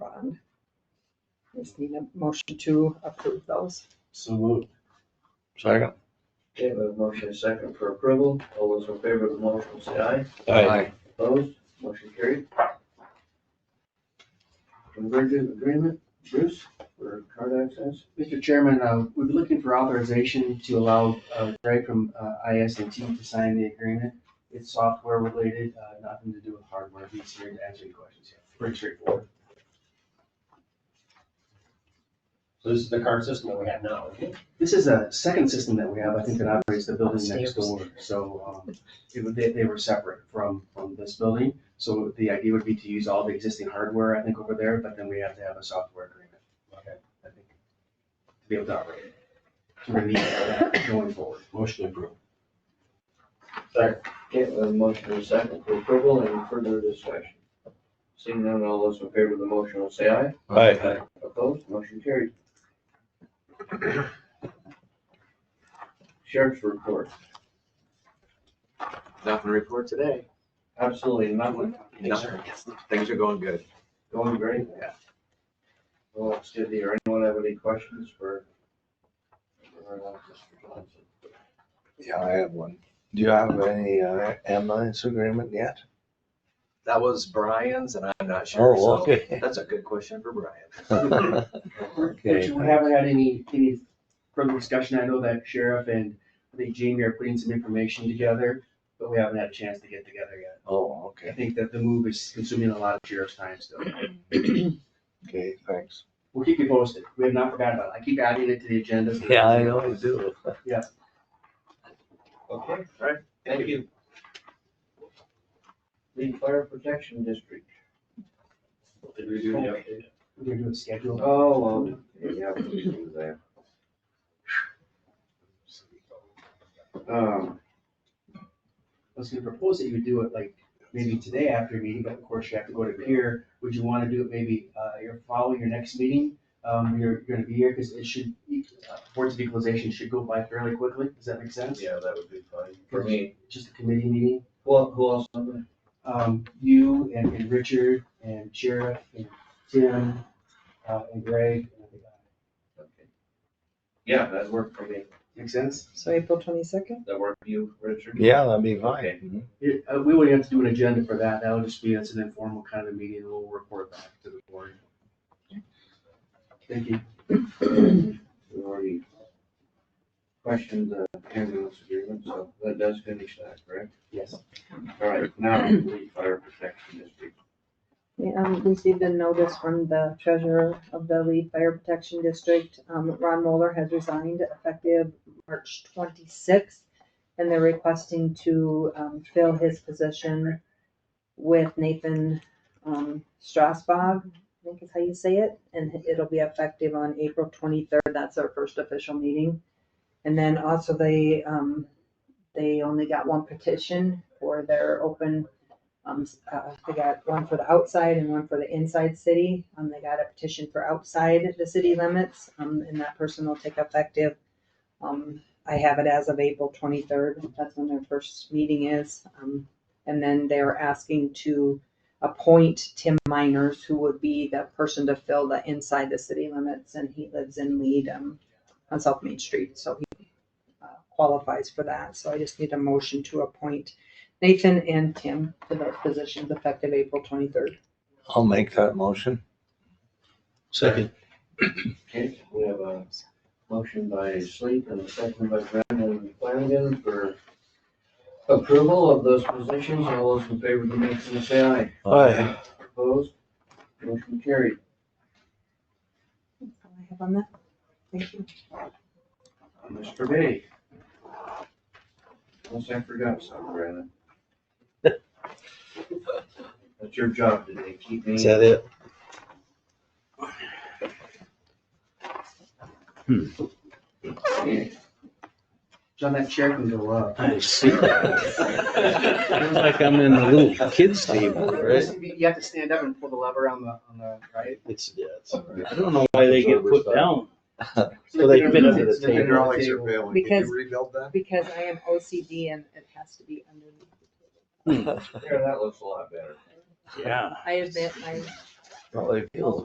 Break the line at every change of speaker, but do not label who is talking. fund. Just need a motion to approve those.
So moved.
Second?
Okay, we have a motion and a second for approval. All those in favor of the motion, say aye.
Aye.
Opposed, motion carried. Convergent agreement, Bruce, for card access.
Mr. Chairman, uh, we've been looking for authorization to allow uh, Greg from is and T to sign the agreement. It's software related, uh, nothing to do with hardware. He's here to answer any questions. Yeah, Pretty straightforward.
So this is the current system that we have now, okay?
This is a second system that we have, I think, that operates the building next door. So um, it would- they they were separate from, from this building. So the idea would be to use all the existing hardware, I think, over there, but then we have to have a software agreement,
Okay.
I think, to be able to operate it. To review that going forward.
Motion approved.
Okay, we have a motion and a second for approval. Any further discussion? Seeing none, all those in favor of the motion will say aye.
Aye.
Opposed, motion carried. Sheriff's report,
Nothing to report today.
absolutely nothing,
Nothing. Things are going good.
going great.
Yeah.
Well, it's good to hear. Anyone have any questions for? for, uh, Mr. Johnson?
Yeah, I have one. Do you have any uh, ambulance agreement yet?
That was Brian's and I'm not sure.
Oh,
so
okay.
That's a good question for Brian.
Okay.
Richard, we haven't had any, any further discussion. I know that sheriff and I think Jamie are putting some information together, but we haven't had a chance to get together yet.
Oh,
I
okay,
think that the move is consuming a lot of sheriff's time still.
okay, thanks.
We'll keep you posted. We have not forgotten about it. I keep adding it to the agenda. so-
do.
Okay, all right, thank you. The Fire Protection District.
Did we do the update?
We're gonna do a schedule.
Oh, well, yeah, we can do that. Um,
I was gonna propose that you would do it like maybe today after your meeting, but of course you have to go to here. Would you wanna do it maybe, uh, you're following your next meeting? Um, you're, you're gonna be here, cause it should, uh, Boards of Equalization should go by fairly quickly. Does that make sense?
yeah, that would be fine for me.
Just a committee meeting.
Who, who else? on there?
um, you and, and Richard and Sheriff and Tim, uh, and Greg. and everybody.
Okay. Yeah, that worked for me.
Make sense?
So April twenty-second?
That worked for you, Richard?
Yeah, that'd be
Okay.
fine.
It- uh, we wouldn't have to do an agenda for that. That'll just be, it's an informal kind of meeting and we'll report back to the board. Thank you.
We already questioned the ambulance agreement, so that does finish that, correct?
Yes.
All right, now the Fire Protection District.
Um, received a notice from the treasurer of the Lee Fire Protection District. Um, Ron Moeller has resigned effective March twenty-sixth. And they're requesting to, um, fill his position with Nathan, um, Strasbog, I think is how you say it. And it'll be effective on April twenty-third. That's our first official meeting. And then also they, um, they only got one petition for their open um, s- uh, they got one for the outside and one for the inside city. Um, they got a petition for outside the city limits, um, and that person will take effective. Um, I have it as of April twenty-third. That's when their first meeting is. Um, and then they're asking to appoint Tim Miners, who would be the person to fill the inside the city limits, and he lives in Lead, um, on South Main Street, so he uh, qualifies for that. So I just need a motion to appoint Nathan and Tim to those positions effective April twenty-third.
I'll make that motion. Second.
Okay, we have a motion by Sleep and a second by Brandon Flanagan for approval of those positions. All those in favor of the motion, say aye.
Aye.
Opposed? Motion carried.
I have on that. Thank you.
Uh, Mr. Bay. Unless I forgot something, Brandon. That's your job today, keep me.
Is that it?
John, that chair can go up.
I see. Sounds like I'm in the little kids table, right?
You have to stand up and pull the lever on the, on the right.
It's, yeah, it's, I don't know why they get put down.
So
they fit under the table.
Hydraulics are failing. Can
Because-
you rebuild that?
Because I am OCD and it has to be underneath. the table.
There, that looks a lot better.
Yeah.
I admit, I
Well, they feel